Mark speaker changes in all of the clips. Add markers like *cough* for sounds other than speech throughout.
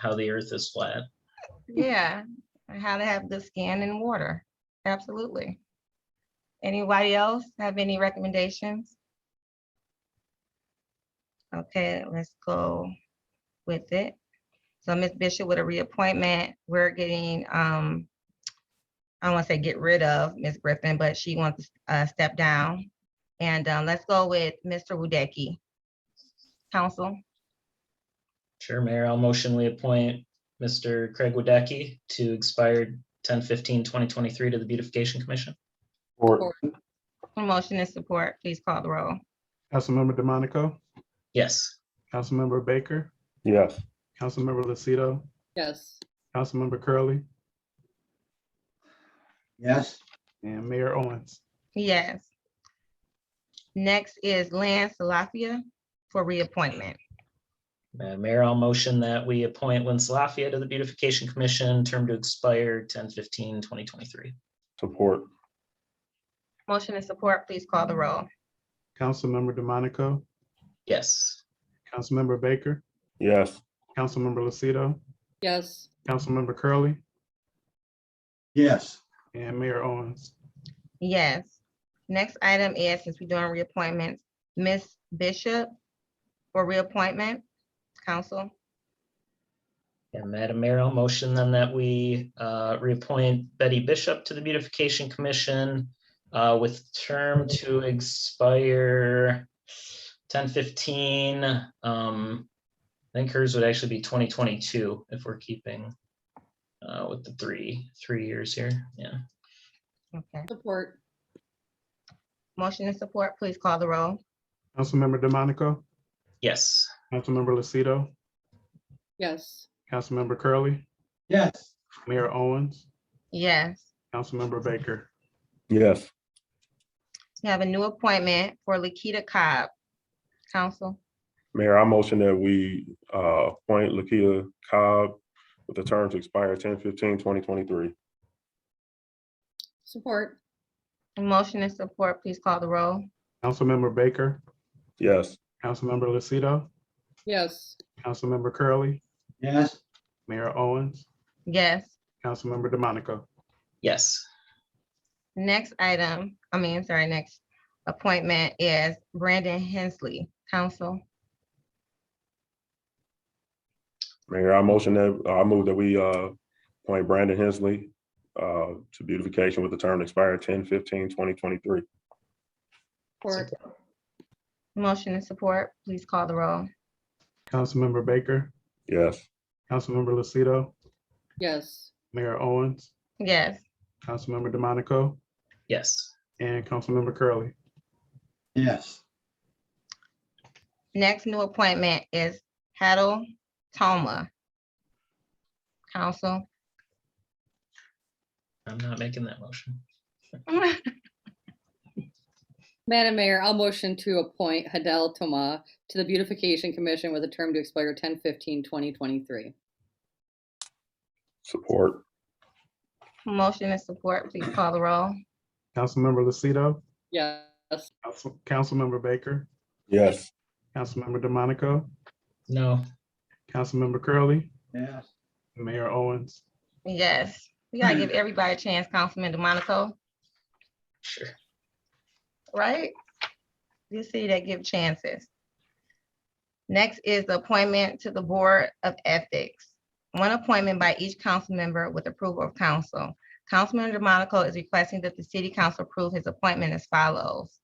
Speaker 1: how the earth is flat.
Speaker 2: Yeah, and how to have good skin and water. Absolutely. Anybody else have any recommendations? Okay, let's go with it. So Ms. Bishop with a reappointment, we're getting, um, I don't want to say get rid of Ms. Griffin, but she wants to uh, step down. And um, let's go with Mr. Wodecki. Council,
Speaker 1: Sure, Mayor, I'll motion we appoint Mr. Craig Wadecki to expire 2023 to the Beautification Commission.
Speaker 3: Or
Speaker 2: motion and support, please call the roll.
Speaker 3: Councilmember DeMonico,
Speaker 1: Yes,
Speaker 3: Councilmember Baker,
Speaker 4: Yes.
Speaker 3: Councilmember Lucido,
Speaker 5: Yes.
Speaker 3: Councilmember Curley,
Speaker 4: Yes.
Speaker 3: and Mayor Owens.
Speaker 2: Yes. Next is Lance Salafia for reappointment.
Speaker 1: Uh, Mayor, I'll motion that we appoint Lynn Lafayette to the Beautification Commission, term to expire 2023.
Speaker 4: Support.
Speaker 2: Motion and support, please call the roll.
Speaker 3: Councilmember DeMonico,
Speaker 1: Yes,
Speaker 3: Councilmember Baker,
Speaker 4: Yes.
Speaker 3: Councilmember Lucido,
Speaker 5: Yes.
Speaker 3: Councilmember Curley,
Speaker 4: Yes.
Speaker 3: and Mayor Owens.
Speaker 2: Yes. Next item is, since we're doing reappointments, Ms. Bishop for reappointment, council.
Speaker 1: and Madam Mayor, I'll motion then that we uh, reappoint Betty Bishop to the Beautification Commission uh, with term to expire 2015. Um, I think hers would actually be twenty twenty-two if we're keeping uh, with the three, three years here. Yeah,
Speaker 2: Okay.
Speaker 5: Support.
Speaker 2: Motion and support, please call the roll.
Speaker 3: Councilmember DeMonico,
Speaker 1: yes.
Speaker 3: Councilmember Lucido,
Speaker 5: Yes.
Speaker 3: Councilmember Curley,
Speaker 4: Yes.
Speaker 3: Mayor Owens,
Speaker 2: Yes.
Speaker 3: Councilmember Baker.
Speaker 4: Yes.
Speaker 2: We have a new appointment for Lakita Cobb, council.
Speaker 4: Mayor, I motion that we uh, appoint Lakia Cobb with the term to expire 2023.
Speaker 5: Support.
Speaker 2: Motion and support, please call the roll.
Speaker 3: Councilmember Baker,
Speaker 4: Yes.
Speaker 3: Councilmember Lucido,
Speaker 5: Yes.
Speaker 3: Councilmember Curley,
Speaker 4: Yes.
Speaker 3: Mayor Owens,
Speaker 2: Yes.
Speaker 3: Councilmember DeMonico.
Speaker 1: Yes,
Speaker 2: Next item, I mean, sorry, next appointment is Brandon Hensley, council.
Speaker 4: Mayor, I motion that, I move that we uh, appoint Brandon Hensley uh, to beautification with the term to expire 2023.
Speaker 5: Support.
Speaker 2: Motion and support, please call the roll.
Speaker 3: Councilmember Baker,
Speaker 4: Yes.
Speaker 3: Councilmember Lucido,
Speaker 5: Yes.
Speaker 3: Mayor Owens,
Speaker 2: Yes,
Speaker 3: Councilmember DeMonico,
Speaker 1: yes,
Speaker 3: and Councilmember Curley.
Speaker 4: Yes.
Speaker 2: next new appointment is Hadel Toma. Council.
Speaker 1: I'm not making that motion.
Speaker 5: Madam Mayor, I'll motion to appoint Hadel Toma to the Beautification Commission with a term to expire 2023.
Speaker 4: Support.
Speaker 2: *laughs* Motion and support, please call the roll.
Speaker 3: Councilmember Lucido,
Speaker 5: Yes.
Speaker 3: Council- Councilmember Baker,
Speaker 4: Yes.
Speaker 3: Councilmember DeMonico,
Speaker 1: No,
Speaker 3: Councilmember Curley,
Speaker 4: Yes.
Speaker 3: Mayor Owens.
Speaker 2: Yes, we gotta give everybody a chance, Councilman DeMonico,
Speaker 1: sure.
Speaker 2: right? You see that give chances. Next is the appointment to the Board of Ethics. One appointment by each council member with approval of council. Councilman DeMonico is requesting that the city council approve his appointment as follows.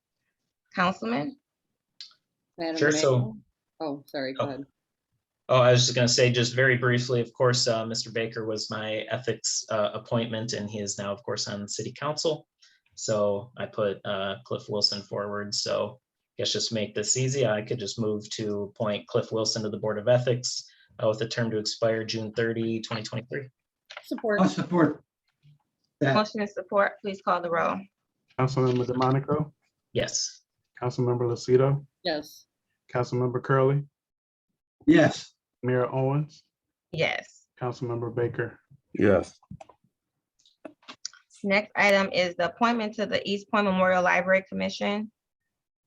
Speaker 2: Councilman,
Speaker 5: Madam
Speaker 1: Sure,
Speaker 5: Mayor-
Speaker 1: so-
Speaker 5: Oh, sorry, go
Speaker 1: Oh.
Speaker 5: ahead.
Speaker 1: Oh, I was just gonna say, just very briefly, of course, uh, Mr. Baker was my ethics uh, appointment, and he is now, of course, on city council. So I put uh, Cliff Wilson forward, so I guess just to make this easy, I could just move to appoint Cliff Wilson to the Board of Ethics uh, with a term to expire June 30, 2023.
Speaker 5: Support.
Speaker 1: Oh.
Speaker 6: I support that.
Speaker 2: motion and support, please call the roll.
Speaker 3: Councilmember DeMonico,
Speaker 1: Yes,
Speaker 3: Councilmember Lucido,
Speaker 5: Yes.
Speaker 3: Councilmember Curley,
Speaker 6: Yes,
Speaker 3: Mayor Owens,
Speaker 2: Yes.
Speaker 3: Councilmember Baker.
Speaker 4: Yes.
Speaker 2: Next item is the appointment to the East Point Memorial Library Commission.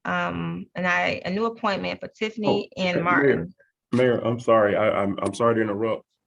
Speaker 2: Um, and I, a new appointment for Tiffany
Speaker 4: Oh,
Speaker 2: and
Speaker 4: okay, Mayor.
Speaker 2: Martin.
Speaker 4: Mayor, I'm sorry. I, I'm, I'm sorry to interrupt.